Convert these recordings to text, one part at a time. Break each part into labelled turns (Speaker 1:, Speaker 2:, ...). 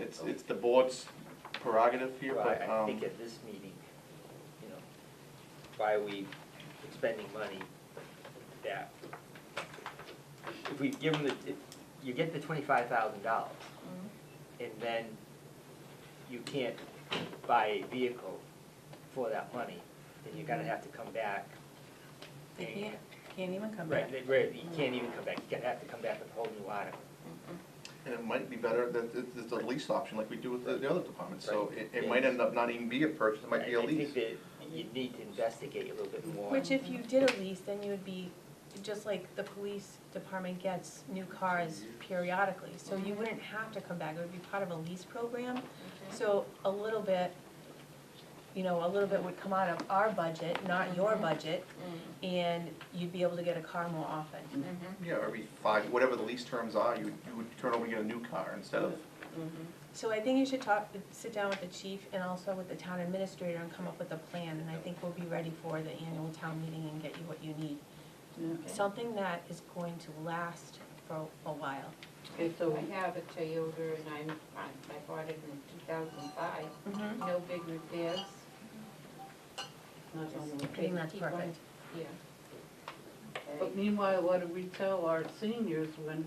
Speaker 1: it's, it's the board's prerogative here,
Speaker 2: Well, I-
Speaker 1: but,
Speaker 2: I
Speaker 1: um,
Speaker 2: think at this meeting, you know, why are we expending money that, if we give them the, if you get the twenty-five thousand dollars,
Speaker 3: Mm-hmm.
Speaker 2: and then you can't buy a vehicle for that money, then you're gonna have to come back.
Speaker 3: They
Speaker 2: and-
Speaker 3: can't, can't even come back.
Speaker 2: Right, they- right, you can't even come back, you're gonna have to come back with a whole new article.
Speaker 1: and it might be better that it- it's a lease option like we do with the the other departments. So
Speaker 2: Right.
Speaker 1: it, it might end up not even be a purchase, it might be a
Speaker 2: I- I
Speaker 1: lease.
Speaker 2: think that you need to investigate a little bit more.
Speaker 3: Which if you did a lease, then you would be, just like the police department gets new cars periodically. So you wouldn't have to come back, it would be part of a lease program. So a little bit, you know, a little bit would come out of our budget, not your budget, and you'd be able to get a car more often.
Speaker 1: Yeah, every five, whatever the lease terms are, you, you would turn over and get a new car instead of,
Speaker 3: So I think you should talk, sit down with the chief and also with the town administrator and come up with a plan. And I think we'll be ready for the annual town meeting and get you what you need. Something that is going to last for a while.
Speaker 4: Okay, so I have a Toyota and I'm, I bought it in two thousand five,
Speaker 3: Mm-hmm.
Speaker 4: no big repairs.
Speaker 5: Not on the-
Speaker 3: I think that's
Speaker 4: Keep on-
Speaker 3: perfect.
Speaker 4: Yeah.
Speaker 5: But meanwhile, what do we tell our seniors when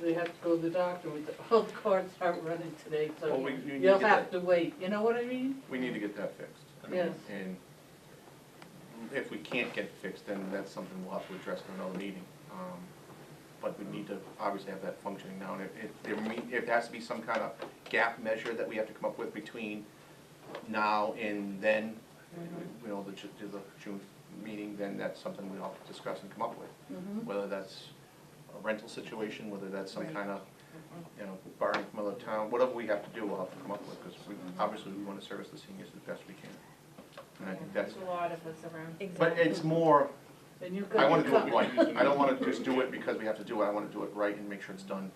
Speaker 5: they have to go to the doctor with the, oh, the cards aren't running today,
Speaker 1: Well,
Speaker 5: so
Speaker 1: we- you need
Speaker 5: you'll
Speaker 1: to get
Speaker 5: have to wait, you know what I mean?
Speaker 1: we need to get that fixed.
Speaker 5: Yes.
Speaker 1: And if we can't get it fixed, then that's something we'll have to address in another meeting. Um, But we need to obviously have that functioning now, and if, if, there me- if there has to be some kind of gap measure that we have to come up with between now and then, you know, the, Ju- the June meeting, then that's something we'll have to discuss and come up with.
Speaker 5: mm-hmm.
Speaker 1: Whether that's a rental situation, whether that's some
Speaker 3: Right.
Speaker 1: kind of,
Speaker 4: Mm-hmm.
Speaker 1: you know, borrowing from other town, whatever we have to do, we'll have to come up with, because we, obviously, we want to service the seniors as best we can. And I think that's,
Speaker 4: There's a lot of us around.
Speaker 1: but
Speaker 3: Exactly.
Speaker 1: it's more,
Speaker 5: And you
Speaker 1: I
Speaker 5: got
Speaker 1: want to
Speaker 5: your
Speaker 1: do it
Speaker 5: cup.
Speaker 1: right, I don't want to just do it because we have to do it, I want to do it right and make sure it's done.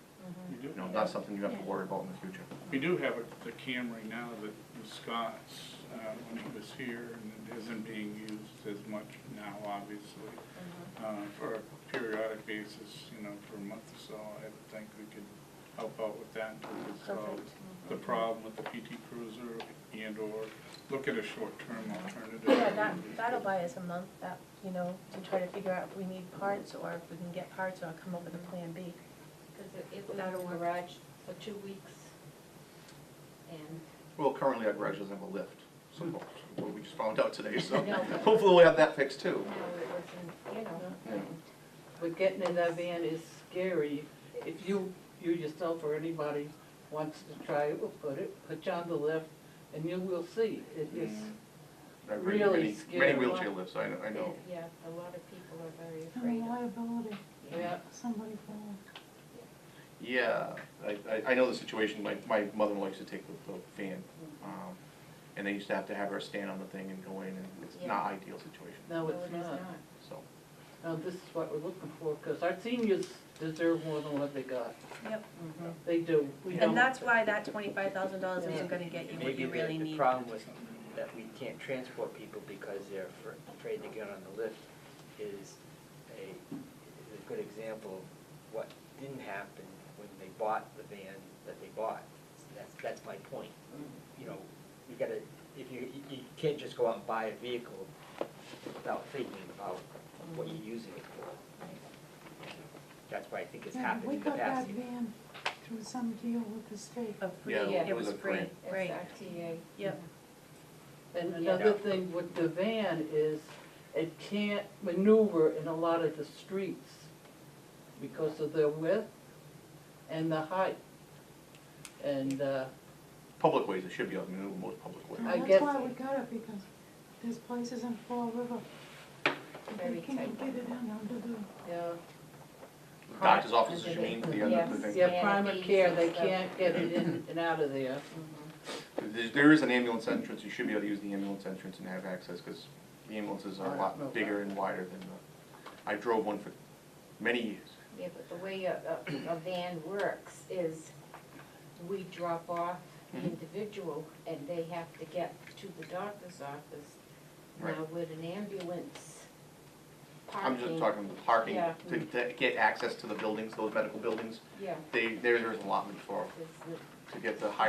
Speaker 1: You know, not something you have to worry about in the future.
Speaker 6: We do have a- the Camry now that was Scott's, uh, when he was here, and it isn't being used as much now, obviously.
Speaker 3: Mm-hmm.
Speaker 6: Uh, For a periodic basis, you know, for a month or so, I think we could help out with that until we solve
Speaker 3: Perfect.
Speaker 6: the problem with the PT Cruiser and/or look at a short-term alternative.
Speaker 3: Yeah, that, that'll buy us a month, that, you know, to try to figure out if we need parts or if we can get parts or come up with a plan B.
Speaker 4: Because it- it was in
Speaker 3: That'll
Speaker 4: the
Speaker 3: work.
Speaker 4: garage for two weeks. And
Speaker 1: Well, currently our garage doesn't have a lift, so,
Speaker 5: Hmm.
Speaker 1: well, we just found out today, so
Speaker 4: No.
Speaker 1: hopefully we'll have that fixed too.
Speaker 4: now it was in, you know.
Speaker 1: Yeah.
Speaker 5: But getting in that van is scary. If you, you yourself or anybody wants to try it, we'll put it, put you on the lift, and you will see. It is,
Speaker 1: I've ridden
Speaker 5: Really
Speaker 1: many-
Speaker 5: scary.
Speaker 1: Many wheelchair lifts, I know, I know.
Speaker 4: Yeah, a lot of people are very
Speaker 7: The
Speaker 4: afraid of
Speaker 7: liability,
Speaker 5: yeah,
Speaker 7: somebody falling.
Speaker 1: Yeah, I, I, I know the situation, my, my mother-in-law used to take the, the van, um, and they used to have to have her stand on the thing and go in, and it's not ideal situation,
Speaker 5: no,
Speaker 4: No,
Speaker 5: it's
Speaker 4: it is
Speaker 5: not.
Speaker 4: not.
Speaker 1: so.
Speaker 5: Now, this is what we're looking for, because our seniors deserve more than what they got.
Speaker 3: Yep.
Speaker 5: They do. We don't.
Speaker 3: And that's why that twenty-five thousand dollars
Speaker 5: Yeah.
Speaker 3: isn't gonna get you what
Speaker 2: Maybe
Speaker 3: you
Speaker 2: the-
Speaker 3: really
Speaker 2: The
Speaker 3: need.
Speaker 2: problem with that we can't transport people because they're afr- afraid to get on the lift is a, is a good example of what didn't happen when they bought the van that they bought. That's, that's my point. You know, you gotta, if you, you- you can't just go out and buy a vehicle without thinking about what you're using it for. That's why I think it's
Speaker 7: And
Speaker 2: happened
Speaker 7: we
Speaker 2: in the
Speaker 7: got that
Speaker 2: past.
Speaker 7: van through some deal with the state.
Speaker 3: Of free,
Speaker 1: Yeah,
Speaker 4: it
Speaker 3: it
Speaker 1: was
Speaker 3: was
Speaker 1: a
Speaker 3: free,
Speaker 1: grant.
Speaker 3: right,
Speaker 4: SRTA.
Speaker 3: yep.
Speaker 5: And
Speaker 4: Yeah.
Speaker 5: another thing with the van is it can't maneuver in a lot of the streets because of their width and the height. And, uh,
Speaker 1: Public ways, it should be, I mean, most public
Speaker 7: And
Speaker 1: ways.
Speaker 5: I guess-
Speaker 7: That's why we got it, because there's places in Fall River.
Speaker 4: Very
Speaker 7: They can't
Speaker 4: tight.
Speaker 7: get it in under the,
Speaker 5: yeah,
Speaker 1: Doctor's offices, you mean, the other
Speaker 4: Yes.
Speaker 1: thing.
Speaker 5: yeah, primary care, they
Speaker 4: Yeah, these are-
Speaker 5: can't get it in and out of there.
Speaker 4: Mm-hmm.
Speaker 1: There, there is an ambulance entrance, you should be able to use the ambulance entrance and have access, because the ambulances are a lot bigger and wider than the, I drove one for many years.
Speaker 4: Yeah, but the way a, a, a van works is we drop off the
Speaker 1: Mhm.
Speaker 4: individual and they have to get to the doctor's office.
Speaker 1: Right.
Speaker 4: Now with an ambulance parking.
Speaker 1: I'm just talking parking,
Speaker 4: Yeah.
Speaker 1: to, to get access to the buildings, those medical buildings,
Speaker 4: Yeah,
Speaker 1: they, there- there's allotment for,
Speaker 4: there's the-
Speaker 1: to get the higher